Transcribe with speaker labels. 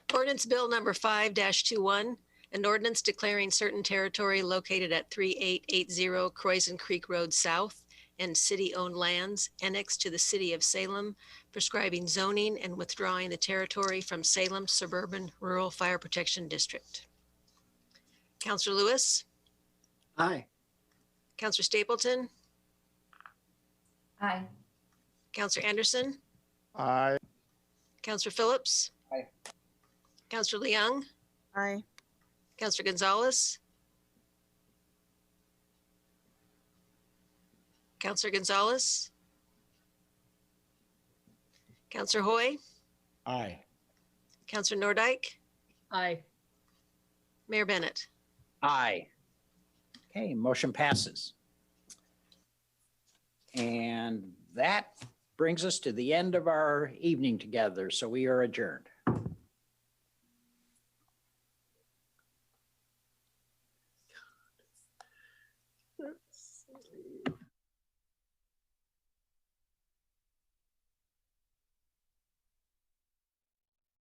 Speaker 1: Ordinance Bill Number 5-21, an ordinance declaring certain territory located at 3880 Croizen Creek Road South and city-owned lands annexed to the city of Salem, prescribing zoning and withdrawing the territory from Salem Suburban Rural Fire Protection District. Counselor Lewis,
Speaker 2: Aye.
Speaker 1: Counselor Stapleton,
Speaker 3: Aye.
Speaker 1: Counselor Anderson,
Speaker 4: Aye.
Speaker 1: Counselor Phillips.
Speaker 2: Aye.
Speaker 1: Counselor Leung,
Speaker 5: Aye.
Speaker 1: Counselor Gonzalez. Counselor Gonzalez. Counselor Hoy,
Speaker 4: Aye.
Speaker 1: Counselor Nordike,
Speaker 3: Aye.
Speaker 1: Mayor Bennett.
Speaker 2: Aye. Okay, motion passes. And that brings us to the end of our evening together, so we are adjourned.